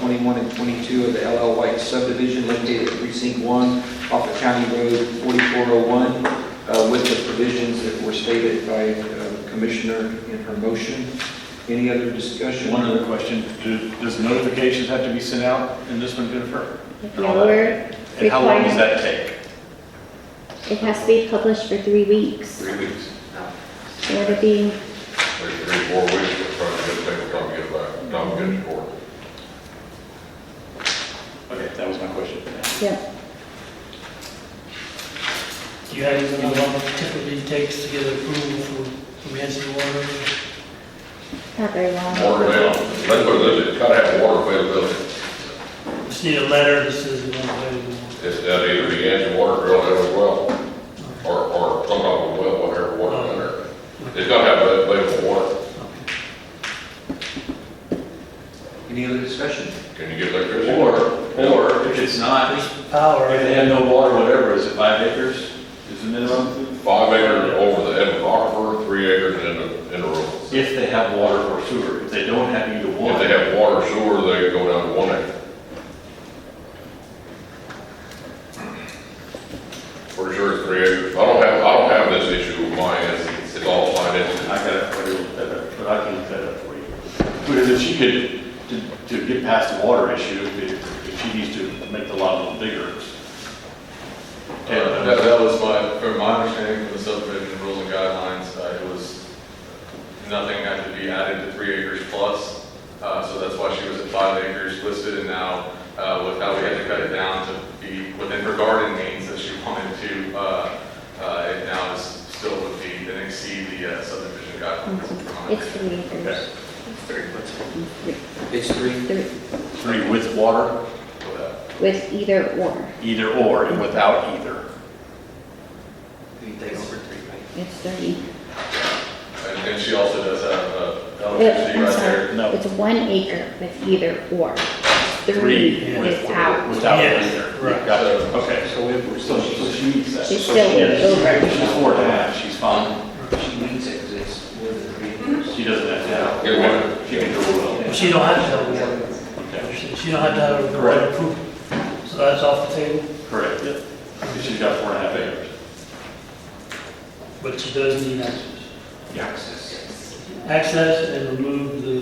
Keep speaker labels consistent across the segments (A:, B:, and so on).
A: 21 and 22 of the LL White subdivision located at precinct 1 off of County Road 4401 uh, with the provisions that were stated by uh, Commissioner in her motion. Any other discussion?
B: One other question, do, does notifications have to be sent out in this one, Jennifer?
C: Yeah, we're
B: And how long does
C: required,
B: that take?
C: it has to be published for three weeks,
D: Three weeks,
C: so it'll be,
D: three, three, four weeks, we're trying to get things, time to get back, time to get to court.
B: Okay, that was my question.
C: yeah,
E: Do you guys know how long it typically takes to get approval for emergency water?
C: not very long.
D: Water bill, let's put it this, it's gotta have water availability.
E: Just need a letter that says we want to
D: It's that either the engine water drill in as well, or, or some type of well, whatever, water in there. It's gotta have available water.
A: Any other discussion?
D: Can you get electricity?
B: Or, or if it's not, if
E: Power.
B: they have no water, whatever, is it five acres is the minimum?
D: Five acres over the end of aquifer, three acres in the, in the rural.
B: If they have water or sewer, if they don't have either
D: If they
B: one,
D: have water sewer, they can go down to one acre. For sure it's three acres. I don't have, I don't have this issue with my end. It's all my end.
B: I gotta, I gotta look that up, but I can look that up for you. Because if she could, to, to get past the water issue, if, if she needs to make the lot a little bigger.
F: Uh, That, that was my, from my understanding from the subdivision rules and guidelines, uh, it was, nothing had to be added to three acres plus. Uh, so that's why she was at five acres listed and now, uh, with how we had to cut it down to be within her garden means that she wanted to, uh, uh, it now is still would be, then exceed the uh, subdivision guidelines. from my
C: Mm-hmm. It's
F: understanding.
C: three acres. Mm-hmm.
A: It's three.
C: Three-
B: Three with water,
F: But, uh,
C: With either or,
B: either or, and without either.
A: Anything over three, right?
C: it's three.
F: And and she also does have, uh,
C: It-
F: electricity
C: I'm
F: right there.
C: sorry,
B: No.
C: It's one acre with either or, three
B: Three with
C: without.
B: Without
E: Yes,
B: either.
E: right.
B: Got it, okay.
A: So if we're,
B: So so she needs that.
C: She's
B: So
C: still
B: she is.
C: over.
B: She's four and a half, she's fine.
A: she needs it because it's more than three acres.
B: She doesn't have to have.
D: Either way.
B: She can do it
E: She don't have to have water.
B: well. Okay,
E: She don't have to have a
B: Correct.
E: water approval. So that's off the table,
B: correct. Because she's got four and a half acres.
E: but she does need access.
B: Yeah.
E: Access and remove the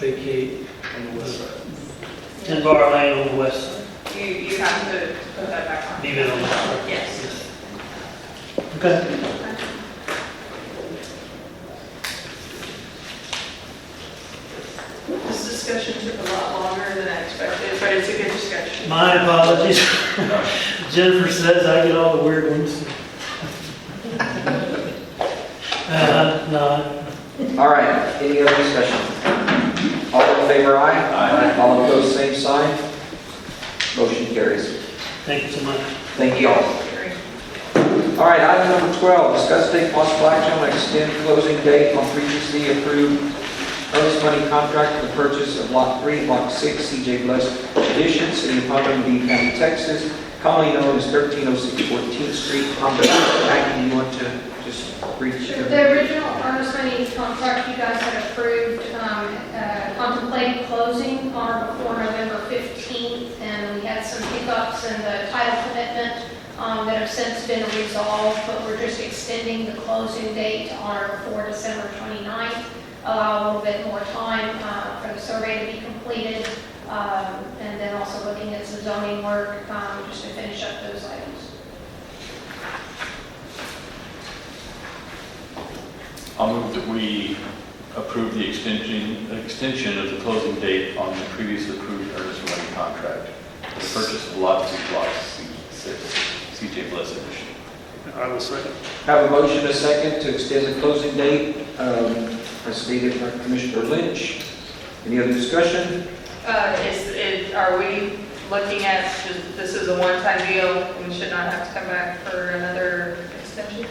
E: vacate. On the west side. Ten bar lane on the west side.
G: You, you have to put that back on.
E: Leave it on the side.
G: Yes.
E: Okay.
G: This discussion took a lot longer than I expected, but it's a good discussion.
E: My apologies. Jennifer says I get all the weird ones. Uh, no,
A: All right, any other discussion? All in favor, aye? Aye. All opposed, same sign. Motion carries.
E: thank you so much.
A: Thank you all. All right, item number 12, discuss take possible action on extend closing date on previously approved earnest money contract for the purchase of Lot 3, Block 6, CJ Bless Edition, City of Palm Beach County, Texas, commonly known as 1306 14th Street, Palm Beach. Maggie, you want to just reach?
H: Sure. The original earnest money contract you guys had approved um, uh, contemplated closing on or before November 15th, and we had some hiccups in the title commitment um, that have since been resolved, but we're just extending the closing date on or before December 29th, allow a little bit more time uh, for the survey to be completed, um, and then also looking at some zoning work, um, just to finish up those items.
B: I'll move that we approve the extension, extension of the closing date on the previously approved earnest money contract for the purchase of lot two, block C six, CJ Bliss edition.
E: I will second.
A: Have a motion, a second, to extend the closing date, um, as stated by Commissioner Lynch. Any other discussion?
G: Uh, is, is, are we looking at, just- this is a one-time deal, we should not have to come back for another extension?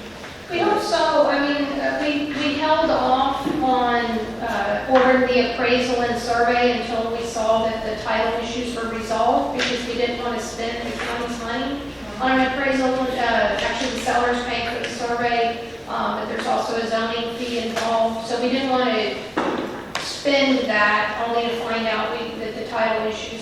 H: We also, I mean, uh, we, we held off on uh, ordering the appraisal and survey until we saw that the title issues were resolved because we didn't want to spend the county's money on an appraisal. Uh, Actually, the seller's paying for the survey, um, but there's also a zoning fee involved. So we didn't want to spend that only to find out we- that the title issues